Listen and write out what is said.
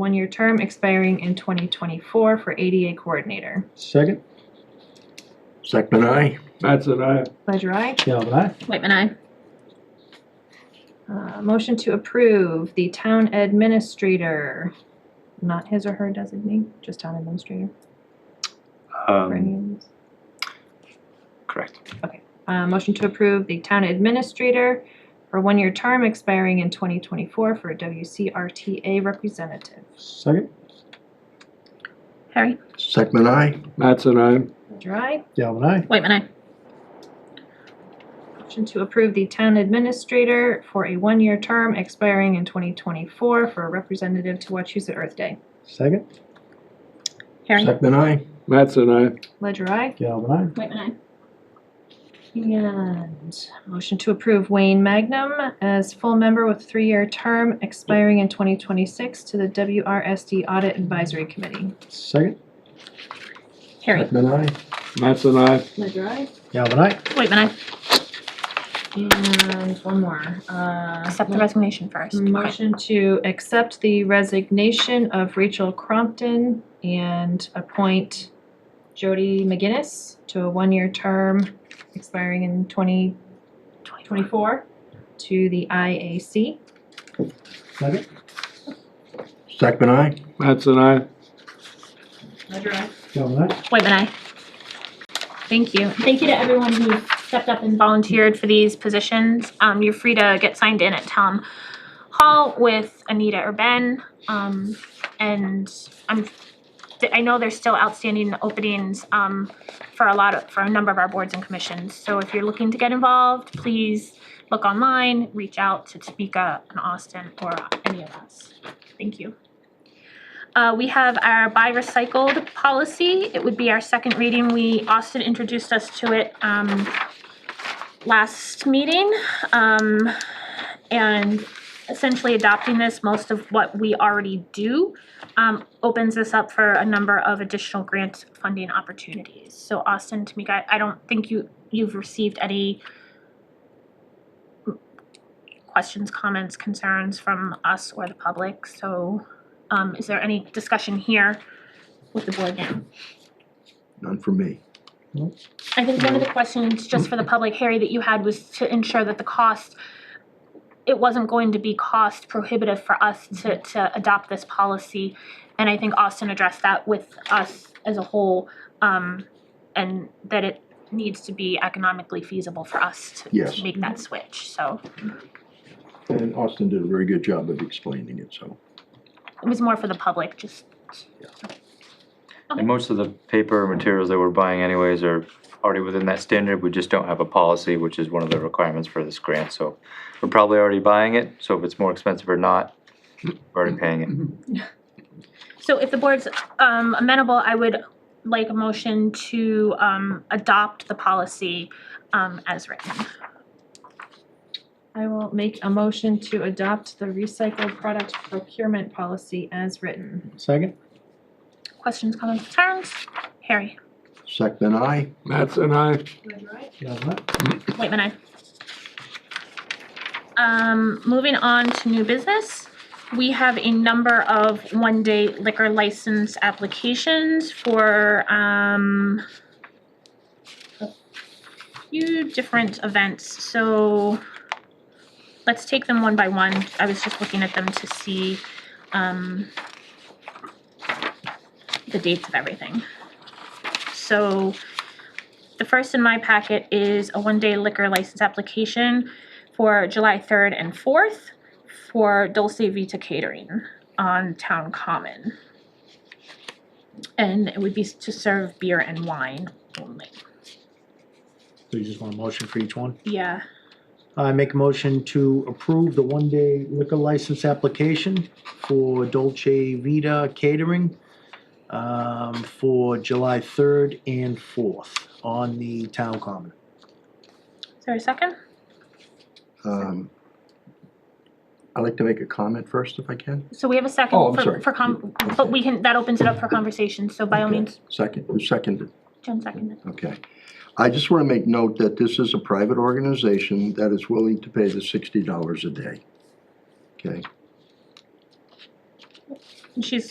one-year term expiring in 2024 for ADA Coordinator. Second, Second I. That's an aye. Ledger, I. Galvin I. Whitman, I. Uh, Motion to approve the Town Administrator, not his or her designee, just Town Administrator. for any Um, of these. correct. Uh, Motion to approve the Town Administrator for one-year term expiring in 2024 for a WCRTA Representative. Second, Harry. Second I. That's an aye. Ledger, I. Galvin I. Whitman, I. Motion to approve the Town Administrator for a one-year term expiring in 2024 for a Representative to Wachusett Earth Day. Second, Harry. Second I. That's an aye. Ledger, I. Galvin I. Whitman, I. And motion to approve Wayne Magnum as full member with three-year term expiring in 2026 to the WRSD Audit Advisory Committee. Second, Harry. Second I. That's an aye. Ledger, I. Galvin I. Whitman, I. And one more. uh, Accept the resignation first. Okay. Motion to accept the resignation of Rachel Crompton and appoint Jody McGinnis to a one-year term expiring in 2024 to the IAC. Second, Second I. That's an aye. Ledger, I. Galvin I. Whitman, I. Thank you. Thank you to everyone who stepped up and volunteered for these positions. Um, you're free to get signed in at Town Hall with Anita or Ben. Um, and I'm, I know there's still outstanding openings, um, for a lot of, for a number of our boards and commissions. So if you're looking to get involved, please look online, reach out to Tamika and Austin or any of us. Thank you. Uh, we have our buy recycled policy. It would be our second reading. We, Austin introduced us to it, um, last meeting. Um, and essentially adopting this, most of what we already do, um, opens this up for a number of additional grant funding opportunities. So Austin, Tamika, I don't think you, you've received any questions, comments, concerns from us or the public, so um, is there any discussion here with the board now? None for me. I think one of the questions, just for the public, Harry, that you had was to ensure that the cost, it wasn't going to be cost prohibitive for us to, to adopt this policy. And I think Austin addressed that with us as a whole, um, and that it needs to be economically feasible for us to, Yes. to make that switch, so. And Austin did a very good job of explaining it, so. It was more for the public, just, And most of the paper materials that we're buying anyways are already within that standard. We just don't have a policy, which is one of the requirements for this grant. So we're probably already buying it, so if it's more expensive or not, we're already paying it. So if the board's um amenable, I would like a motion to um adopt the policy um as written. I will make a motion to adopt the recycled product procurement policy as written. Second, Questions, comments, concerns? Harry, Second I. That's an aye. Galvin I. Whitman, I. Um, moving on to new business, we have a number of one-day liquor license applications for um a few different events, so let's take them one by one. I was just looking at them to see um the dates of everything. So the first in my packet is a one-day liquor license application for July third and fourth for Dulce Vita Catering on Town Common. And it would be to serve beer and wine only. So you just want a motion for each one? Yeah, I make a motion to approve the one-day liquor license application for Dolce Vita Catering um, for July 3rd and 4th on the town common. is there a second? Um, I'd like to make a comment first if I can. So we have a Oh, second I'm for, sorry. for com, but we can, that opens it up for conversation, so by all Okay. means, Second, who seconded? Jen seconded. Okay. I just want to make note that this is a private organization that is willing to pay the sixty dollars a day. Okay? And she's